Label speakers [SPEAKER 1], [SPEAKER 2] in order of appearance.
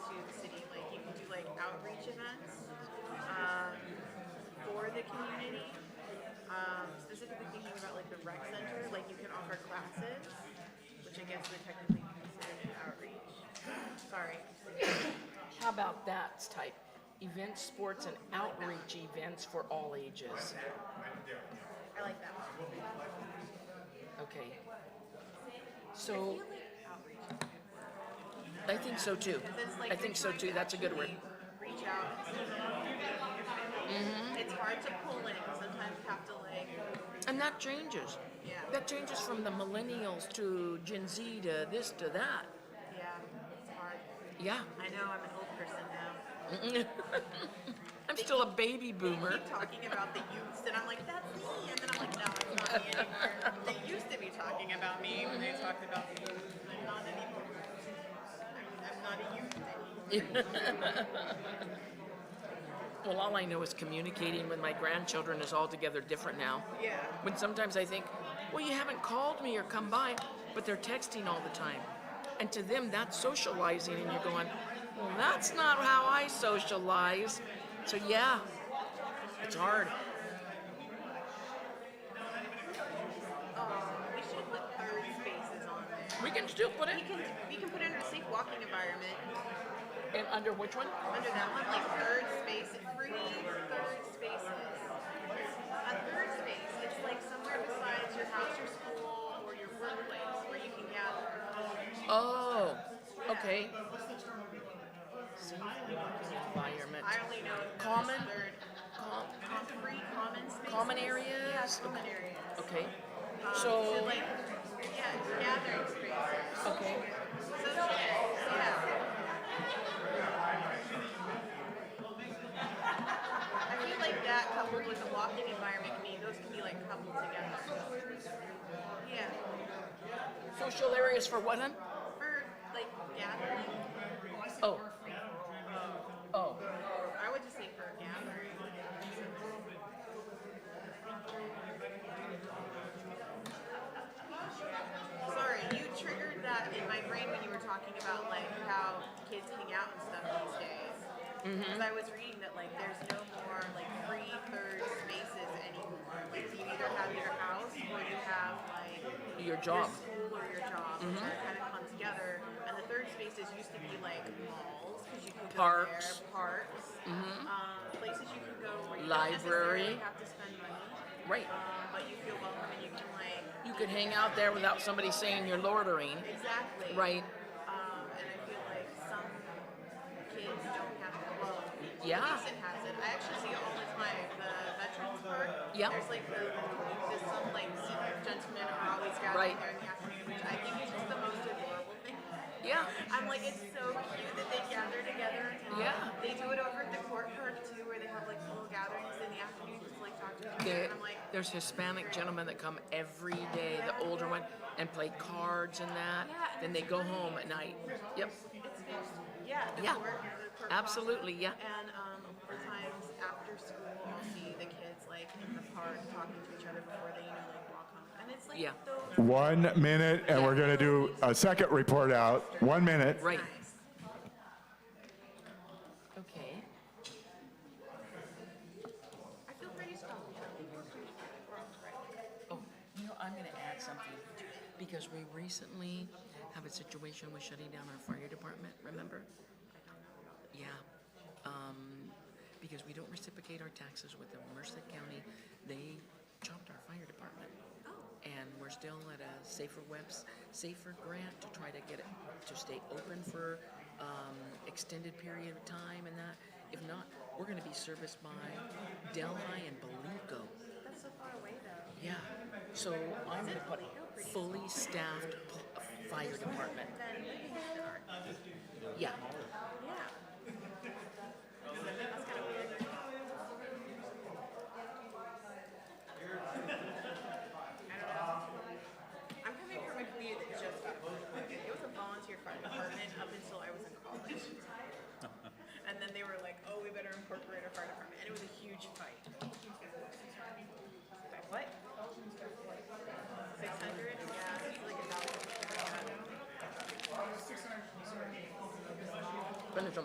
[SPEAKER 1] um, the community. Um, specifically thinking about like the rec center, like you can offer classes, which I guess would technically be considered outreach. Sorry.
[SPEAKER 2] How about that type? Events, sports, and outreach events for all ages.
[SPEAKER 1] I like that one.
[SPEAKER 2] Okay.
[SPEAKER 1] I
[SPEAKER 2] So,
[SPEAKER 1] feel like outreach.
[SPEAKER 2] I think so too.
[SPEAKER 1] Because, like,
[SPEAKER 2] I
[SPEAKER 1] you're
[SPEAKER 2] think so
[SPEAKER 1] trying
[SPEAKER 2] too.
[SPEAKER 1] to
[SPEAKER 2] That's a good word.
[SPEAKER 1] actually Reach out.
[SPEAKER 2] Mm-hmm.
[SPEAKER 1] It's hard to pull in. Sometimes you have to like,
[SPEAKER 2] And that changes.
[SPEAKER 1] Yeah.
[SPEAKER 2] That changes from the millennials to Gen Z to this to that.
[SPEAKER 1] yeah, it's hard.
[SPEAKER 2] Yeah.
[SPEAKER 1] I know I'm an old person now.
[SPEAKER 2] I'm still a baby boomer.
[SPEAKER 1] Keep talking about the youths, and I'm like, that's me. And then I'm like, no, it's not me anymore. They used to be talking about me when they talked about the youths. I'm not anymore. I'm- I'm not a youth anymore.
[SPEAKER 2] Well, all I know is communicating with my grandchildren is altogether different now.
[SPEAKER 1] Yeah.
[SPEAKER 2] When sometimes I think, well, you haven't called me or come by, but they're texting all the time. And to them, that's socializing, and you're going, well, that's not how I socialize. So, yeah, it's hard.
[SPEAKER 1] Um, we should put third spaces on there.
[SPEAKER 2] We can still put
[SPEAKER 1] We
[SPEAKER 2] it
[SPEAKER 1] can we can put it under safe walking environment.
[SPEAKER 2] in under which one?
[SPEAKER 1] Under that one, like third space, free third spaces. A third space, it's like somewhere besides your house, your school, or your workplace where you can gather.
[SPEAKER 2] Oh, okay. See, environment.
[SPEAKER 1] I only know of
[SPEAKER 2] Common?
[SPEAKER 1] this third
[SPEAKER 2] Com-
[SPEAKER 1] com- free common spaces.
[SPEAKER 2] Common areas?
[SPEAKER 1] Yeah, common areas.
[SPEAKER 2] Okay.
[SPEAKER 1] Um, to
[SPEAKER 2] So,
[SPEAKER 1] like yeah, gathering spaces.
[SPEAKER 2] okay.
[SPEAKER 1] Social areas, yeah. I feel like that coupled with the walking environment can be those can be like coupled together. Yeah.
[SPEAKER 2] Social areas for what, hun?
[SPEAKER 1] For like gathering.
[SPEAKER 2] Oh. Oh.
[SPEAKER 1] Or I would just say for gathering. Sorry, you triggered that in my brain when you were talking about like how kids hang out and stuff these days.
[SPEAKER 2] Mm-hmm.
[SPEAKER 1] Because I was reading that like there's no more like free third spaces anymore. Like you either have your house or you have like
[SPEAKER 2] Your job.
[SPEAKER 1] your
[SPEAKER 2] Mm-hmm.
[SPEAKER 1] school or your job kind of come together. And the third spaces used to be like malls because you could go
[SPEAKER 2] Parks.
[SPEAKER 1] there,
[SPEAKER 2] Mm-hmm.
[SPEAKER 1] parks, um, places you could go where you
[SPEAKER 2] Library.
[SPEAKER 1] don't necessarily have to spend money,
[SPEAKER 2] Right.
[SPEAKER 1] um, but you feel welcome and you can like
[SPEAKER 2] You could hang out there without somebody saying you're loitering.
[SPEAKER 1] exactly
[SPEAKER 2] Right.
[SPEAKER 1] Um, and I feel like some kids don't have that. Well,
[SPEAKER 2] Yeah.
[SPEAKER 1] Houston has it. I actually see it all the time. The Veterans Park.
[SPEAKER 2] Yep.
[SPEAKER 1] There's like the, there's some like senior gentlemen are always gathering
[SPEAKER 2] Right.
[SPEAKER 1] there in the afternoon, which I think is just the most adorable thing.
[SPEAKER 2] Yeah.
[SPEAKER 1] I'm like, it's so cute that they gather together. And
[SPEAKER 2] Yeah.
[SPEAKER 1] They do it over at the court park too, where they have like little gatherings in the afternoon just to like talk to each other.
[SPEAKER 2] There,
[SPEAKER 1] and I'm like,
[SPEAKER 2] there's Hispanic gentlemen that come every day, the older one, and play cards and that. Then they go home at night. Yep.
[SPEAKER 1] It's fixed. Yeah, the
[SPEAKER 2] Yeah.
[SPEAKER 1] court, the court
[SPEAKER 2] Absolutely,
[SPEAKER 1] process.
[SPEAKER 2] yeah.
[SPEAKER 1] And um, sometimes after school, I'll see the kids like in the park talking to each other before they, you know, like walk home. And it's like
[SPEAKER 2] Yeah.
[SPEAKER 1] those
[SPEAKER 3] One minute, and we're going to do a second report out. One minute.
[SPEAKER 2] Right.
[SPEAKER 1] nice.
[SPEAKER 2] Okay.
[SPEAKER 1] I feel pretty strong. I think we're pretty we're all right.
[SPEAKER 2] Oh, you know, I'm going to add something because we recently have a situation with shutting down our fire department, remember? Yeah. Um, because we don't reciprocate our taxes with the Merced County, they chopped our fire department.
[SPEAKER 1] Oh,
[SPEAKER 2] And we're still at a safer webs, safer grant to try to get it to stay open for um, extended period of time and that. If not, we're going to be serviced by Delhi and Beluco.
[SPEAKER 1] That's so far away though.
[SPEAKER 2] Yeah, so I'm gonna put fully staffed p- fire department.
[SPEAKER 1] Then we can start.
[SPEAKER 2] Yeah,
[SPEAKER 1] "Oh,